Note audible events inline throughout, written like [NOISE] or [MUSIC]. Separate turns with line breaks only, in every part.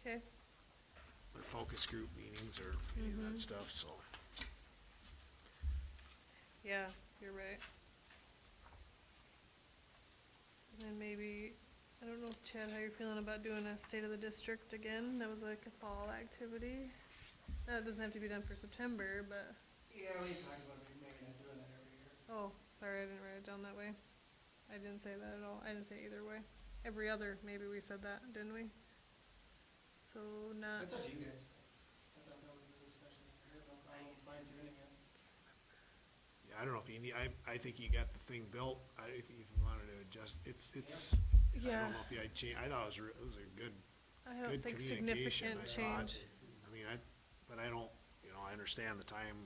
Okay.
their focus group meetings or any of
Mm-hmm.
that stuff, so.
Yeah, you're right. And then maybe, I don't know, Chad, how you're feeling about doing a state of the district again? That was like a fall activity. That doesn't have to be done for September, but,
Yeah, we talked about maybe not doing that every year.
oh, sorry, I didn't write it down that way. I didn't say that at all. I didn't say either way. Every other, maybe we said that, didn't we? So not,
That's up to you guys. I thought that was a good discussion. I had no problem with mine doing it.
Yeah, I don't know if you need, I, I think you got the thing built, I, if you wanted to adjust, it's, it's, I
Yeah.
don't know if you, I changed, I thought it was, re- it was a good,
I don't
good
think significant
communication, I thought.
change.
I mean, I, but I don't, you know, I understand the time,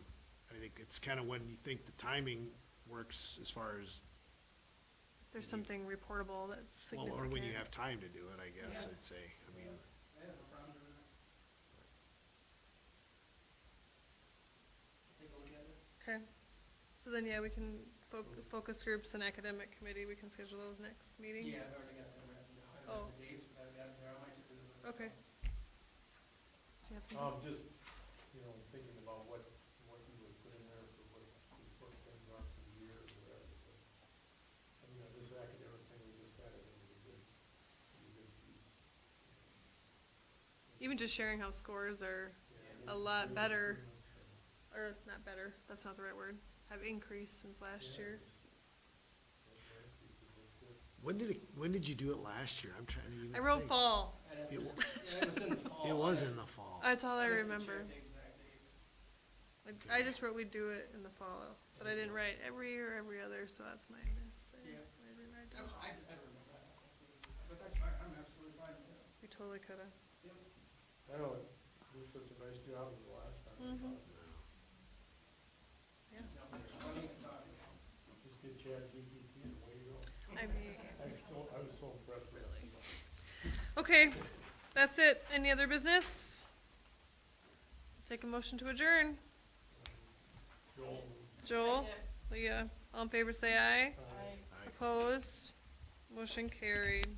I think it's kinda when you think the timing works as far as,
There's
you-
something reportable that's
Mm-hmm. well,
significant.
or when you have time to do it, I guess,
Yeah.
I'd say, I mean,
I have no problem doing it. Take a look at it.
Okay, so then, yeah, we can, foc- focus groups and academic committee, we can schedule those next meeting?
Yeah, I've already got them written down. I don't
Oh.
have the dates, but I've got them there. I might just do them.
Okay. Do you have something?
Um, just, you know, thinking about what, what you would put in there for what the important things are for the year or whatever. but, I mean, uh, this academic thing we just had, I think is a good, is a good piece.
Even just sharing how scores are, a
Yeah, it's
lot
really
better
pretty much, uh,
or not better, that's not the right word, have increased since last
yeah,
year.
it's- it's very piece of work, good.
when did it, when did you do it last year? I'm trying to even
I wrote
think.
fall,
I'd have
It
to-
wa-
uh, yeah, it was
[LAUGHS]
in the fall.
[LAUGHS] It was
I'd-
in the fall.
that's all I
I'd have to
remember.
check the exact date.
I- I just wrote we do it in the fall, but I didn't write every year, or every other, so that's my mistake.
Yeah.
I didn't write
That's,
down.
I, I don't remember that. But that's fine. I'm absolutely fine with it.
We totally could've,
Yep.
I know, it did such a nice job of the last time. I
Mhm.
thought,
yeah,
No, there's plenty of time.
Just get Chad GPT and away you go.
I mean.
I was so, I was so impressed with it.
Okay, that's it. Any other business? Take a motion to adjourn.
Joel,
Joel, Leah, all in favor say aye.
uh,
I-
Opposed? Motion carried.